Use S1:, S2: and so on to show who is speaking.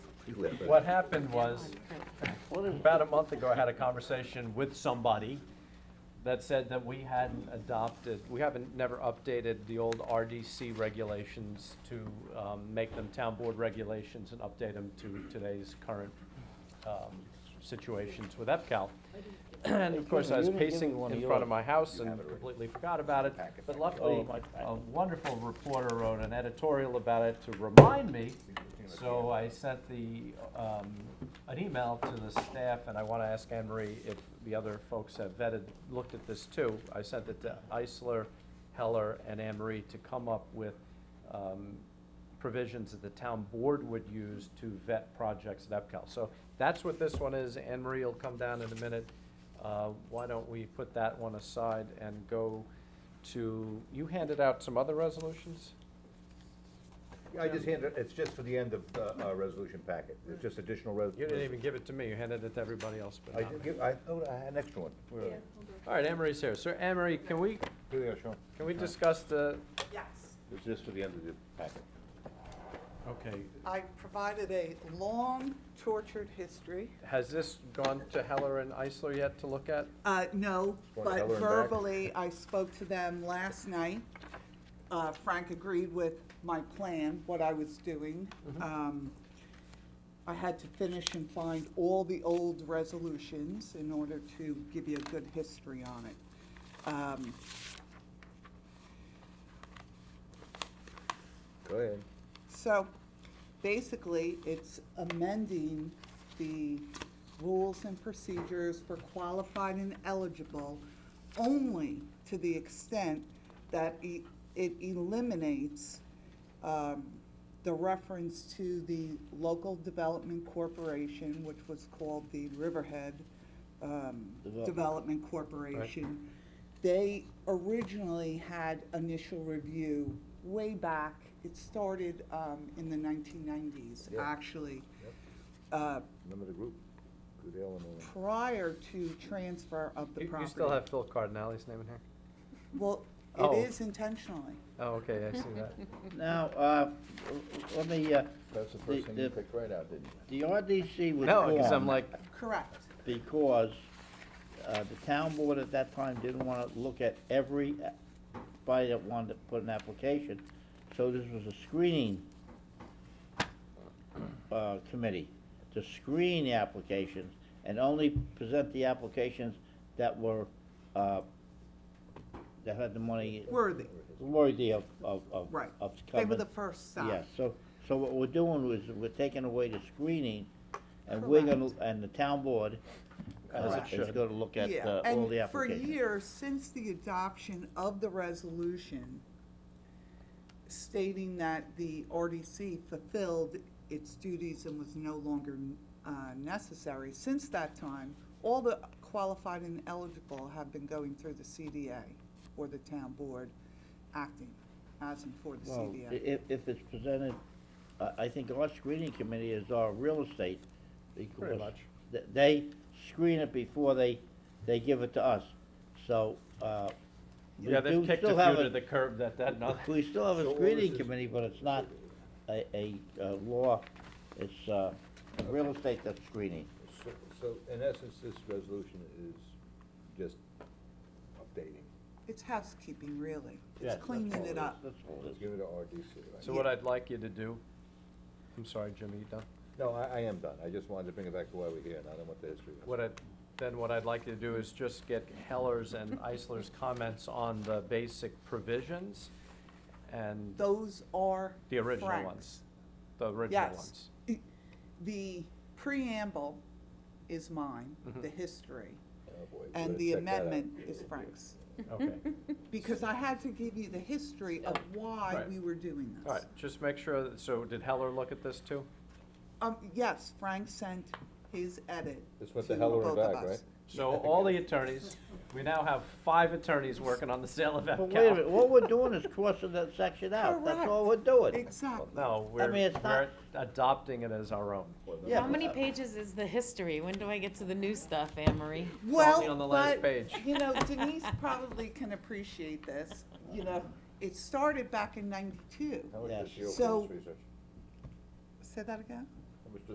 S1: What happened was, about a month ago, I had a conversation with somebody that said that we hadn't adopted, we haven't never updated the old RDC regulations to um, make them town board regulations and update them to today's current um, situations with EPCAL. And of course, I was
S2: You didn't give me
S1: pacing
S2: one of
S1: in front of
S2: yours.
S1: my house and completely forgot about it. But luckily,
S2: Oh, my packet.
S1: a wonderful reporter wrote an editorial about it to remind me. So I sent the, um, an email to the staff, and I want to ask Anne Marie if the other folks have vetted, looked at this too. I sent it to Eisler, Heller, and Anne Marie to come up with um, provisions that the town board would use to vet projects at EPCAL. So that's what this one is. Anne Marie will come down in a minute. Uh, Why don't we put that one aside and go to, you handed out some other resolutions?
S3: I just handed, it's just for the end of the uh, resolution packet, it's just additional res-
S1: You didn't even give it to me, you handed it to everybody else but
S3: I
S1: not
S3: did
S1: me.
S3: give, I, oh, I had an extra one. Where are they?
S1: All right, Anne Marie's here. So Anne Marie, can we,
S3: Here they are, Sean.
S1: can we discuss the,
S4: Yes,
S3: It's just for the end of the packet.
S1: okay,
S4: I provided a long tortured history.
S1: has this gone to Heller and Eisler yet to look at?
S4: Uh, no,
S3: Want
S4: but
S3: Heller and back?
S4: verbally, I spoke to them last night. Uh, Frank agreed with my plan, what I was doing. Um, I had to finish and find all the old resolutions in order to give you a good history on it. Um,
S3: Go ahead.
S4: So basically, it's amending the rules and procedures for qualified and eligible only to the extent that e- it eliminates um, the reference to the local development corporation, which was called the Riverhead um,
S2: Development.
S4: Development Corporation. They originally had initial review way back, it started um, in the 1990s,
S3: Yeah.
S4: actually. Uh,
S3: Remember the group? Goodell and all them.
S4: Prior to transfer of the
S1: You
S4: property.
S1: you still have Phil Cardinale's name in here?
S4: Well,
S1: Oh.
S4: it is intentionally.
S1: Oh, okay, I see that.
S2: Now, uh, let me, uh,
S3: That's the
S2: The-
S3: first thing you
S2: the-
S3: picked right out, didn't you?
S2: the RDC was
S1: No, because I'm
S2: formed
S1: like,
S4: Correct.
S2: Because, uh, the town board at that time didn't wanna look at every, a- body that wanted to put an application, so this was a screening, uh, committee, to screen the applications, and only present the applications that were, uh, that had the money.
S4: Worthy,
S2: Worthy of, of, of.
S4: right.
S2: Of
S4: They were
S2: coming.
S4: the first stop.
S2: Yeah, so, so what we're doing is we're taking away the screening, and we're gonna, and the town board
S1: As
S4: it
S2: uh, is
S1: should.
S2: gonna look at
S4: Yeah,
S2: uh, all the
S4: And for
S2: applications.
S4: years, since the adoption of the resolution stating that the RDC fulfilled its duties and was no longer uh, necessary, since that time, all the qualified and eligible have been going through the CDA or the town board acting as and for the
S2: Well, i-
S4: CDA.
S2: if, if it's presented, I, I think our screening committee is our real estate, because
S1: much.
S2: th- they screen it before they, they give it to us, so, uh. we
S1: yeah, they've
S2: do
S1: kicked
S2: still
S1: a
S2: have
S1: few to the curb that, that, not,
S2: We still have
S3: So
S2: a
S3: all
S2: screening
S3: this is-
S2: committee, but it's not a, a, uh law, it's, uh, real estate that's screening.
S3: So- So, in essence, this resolution is just updating.
S4: It's housekeeping, really.
S2: Yes,
S4: It's
S2: that's
S4: cleaning
S2: all
S4: it up.
S2: That's all it is.
S3: Let's give it to RDC, right?
S1: so what I'd like you to do, I'm sorry, Jimmy, you done?
S3: No, I, I am done, I just wanted to bring it back to why we're here, and I don't want the history.
S1: What I, then what I'd like to do is just get Heller's and Eisler's comments on the basic provisions and
S4: Those are
S1: the original
S4: Frank's.
S1: ones. The original
S4: Yes.
S1: ones.
S4: The preamble is mine,
S3: Mm-hmm.
S4: the history,
S3: Oh, boy, we
S4: and
S3: better
S4: the
S3: check that out.
S4: amendment is Frank's.
S1: Okay,
S4: Because I had to give you the history of why
S1: Right.
S4: we were doing this.
S1: all right, just make sure, that- so did Heller look at this too?
S4: Um, yes, Frank sent his edit
S3: This
S4: to
S3: went to Heller and
S4: both of
S3: back, right?
S4: us.
S1: So all the attorneys, we now have five attorneys working on the sale of
S2: But wait a
S1: EPCAL.
S2: minute, what we're doing is crossing that section out, that's all we're doing.
S4: Exactly.
S1: No, we're,
S2: mean, it's
S1: we're
S2: not-
S1: adopting it as our own.
S2: Yeah,
S5: How
S2: but- uh,
S5: many pages is the history? When do I get to the new stuff, Anne Marie?
S1: only on the
S4: Well,
S1: last
S4: but,
S1: page.
S4: you know, Denise probably can appreciate this, you know, it started back in ninety-two.
S3: How much
S2: Yes.
S3: is the open
S4: So-
S3: research?
S4: Say that again?